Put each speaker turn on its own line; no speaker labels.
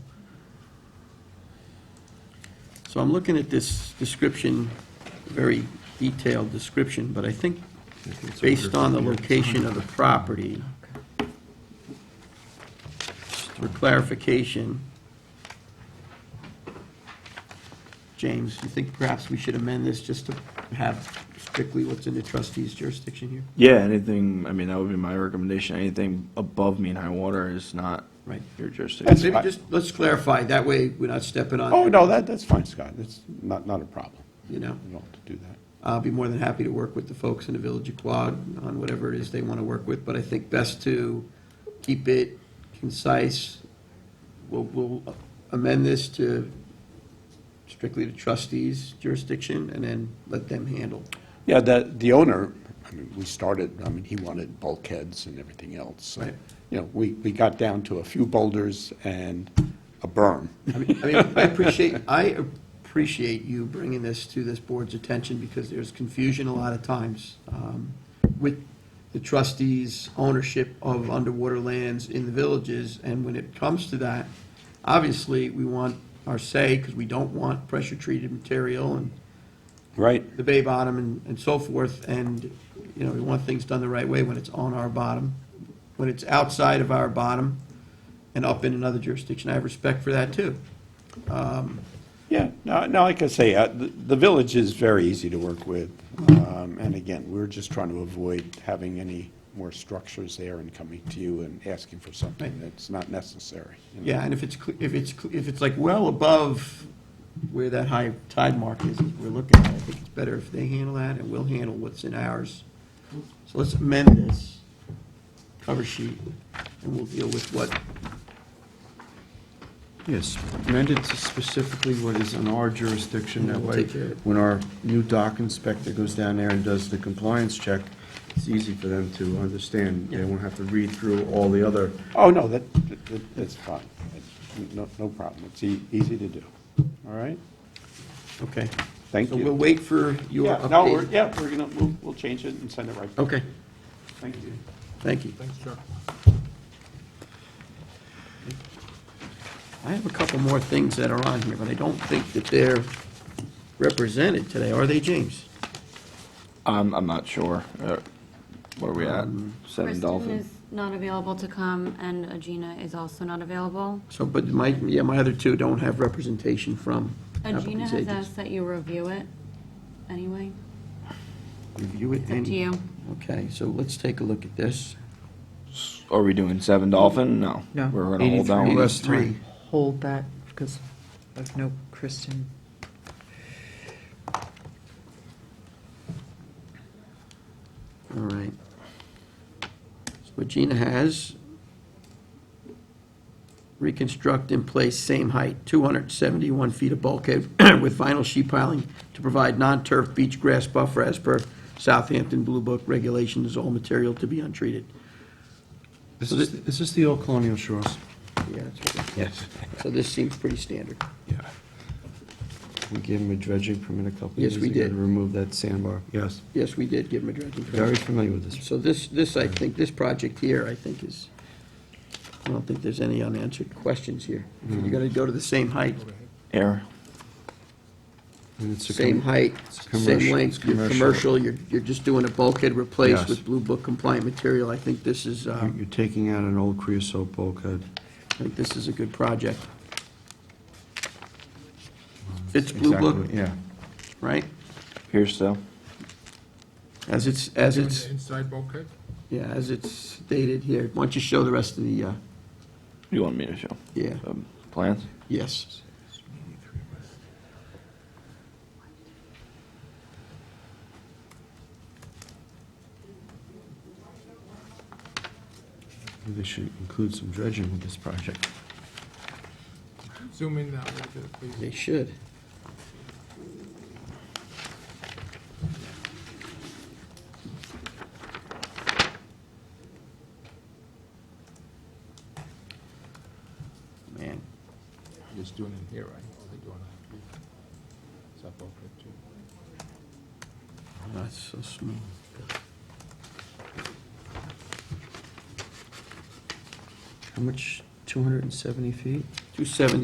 So I'm looking at this description, very detailed description, but I think based on the location of the property, for clarification, James, you think perhaps we should amend this just to have strictly what's in the trustee's jurisdiction here?
Yeah, anything, I mean, that would be my recommendation, anything above mean high water is not
Right.
your
That's-
jurisdiction.
Maybe just, let's clarify, that way we're not stepping on.
Oh, no, that, that's fine, Scott. It's not, not a problem.
You know?
You don't have to do that.
I'll be more than happy to work with the folks in the Village of Quad on whatever it is they want to work with, but I think best to keep it concise. We'll, we'll amend this to strictly the trustees jurisdiction and then let them handle.
Yeah, the, the owner, I mean, we started, I mean, he wanted bulkheads and everything else. So,
Right.
You know, we, we got down to a few boulders and a berm.
I mean, I mean, I appreciate, I appreciate you bringing this to this board's attention because there's confusion a lot of times um, with the trustees' ownership of underwater lands in the villages. And when it comes to that, obviously, we want our say because we don't want pressure-treated material and
Right.
the bay bottom and, and so forth, and, you know, we want things done the right way when it's on our bottom. When it's outside of our bottom and up in another jurisdiction, I have respect for that too.
Yeah, no, no, like I say, uh, the, the village is very easy to work with. Um, and again, we're just trying to avoid having any more structures there and coming to you and asking for something
Right.
that's not necessary. you know.
Yeah, and if it's, cl- if it's, cl- if it's like well above where that high tide mark is, we're looking at, I think it's better if they handle that, and we'll handle what's in ours. So let's amend this cover sheet, and we'll deal with what,
Yes, amended to specifically what is in our jurisdiction, that
We'll
way,
take care of it.
when our new dock inspector goes down there and does the compliance check, it's easy for them to understand, they won't have to read through all the other,
Oh, no, that, that- that's fine. It's No, no problem. It's e- easy to do. All right?
okay.
Thank
So
you.
we'll wait for your
Yeah, no, we're,
update.
yeah, we're gonna, we'll, we'll change it and send it right. back.
Okay,
Thank you.
thank you.
Thanks, Chuck.
I have a couple more things that are on here, but I don't think that they're represented today, are they, James?
I'm, I'm not sure. Uh, What are we at?
Um,
Seven
Kristen
Dolphin?
is not available to come, and Agina is also not available.
So, but my, yeah, my other two don't have representation from
Agina
applicants'
Uh, has
agents.
asked that you review it anyway.
Review it
It's up
and-
to you.
Okay, so let's take a look at this.
Are we doing Seven Dolphin? No.
No.
We're gonna hold down.
Eighty-three. Less three.
Hold that, because of no Kristen.
All right. So what Gina has, reconstruct in place, same height, 271 feet of bulkhead with vinyl sheet piling to provide non-turf beach grass buffer as per Southampton Blue Book regulations, all material to be untreated.
this
So
is,
thi-
this is the old Colonial Shores.
Yeah, that's what- So this seems pretty standard.
Yeah. We gave him a dredging permit a couple
Yes,
years ago.
we did.
To remove that sandbar, yes,
Yes, we did give them a dredging permit.
very familiar with this.
So this, this, I think, this project here, I think is, I don't think there's any unanswered questions here. You're gonna go to the same height,
Air.
And it's a com-
same height,
it's
same
commercial- it's
length, you're commercial, you're, you're just doing a bulkhead replace
Yes.
with Blue Book compliant material. I think this is, uh,
um, You're- You're taking out an old creosote bulkhead.
I think this is a good project. Fits Blue Book,
Exactly, Yeah.
right?
Here still.
As it's, as
Doing
it's,
the Inside bulkhead?
yeah, as it's stated here. Why don't you show the rest of the, uh,
You want me to show?
yeah,
um, Plans?
yes.
They should include some dredging with this project.
Zoom in that a little bit, please.
They should. Man,
You're Just doing it here, right? Or they doing it? Is that bulkhead too?
that's so small.
How much, 270 feet?
Two seventy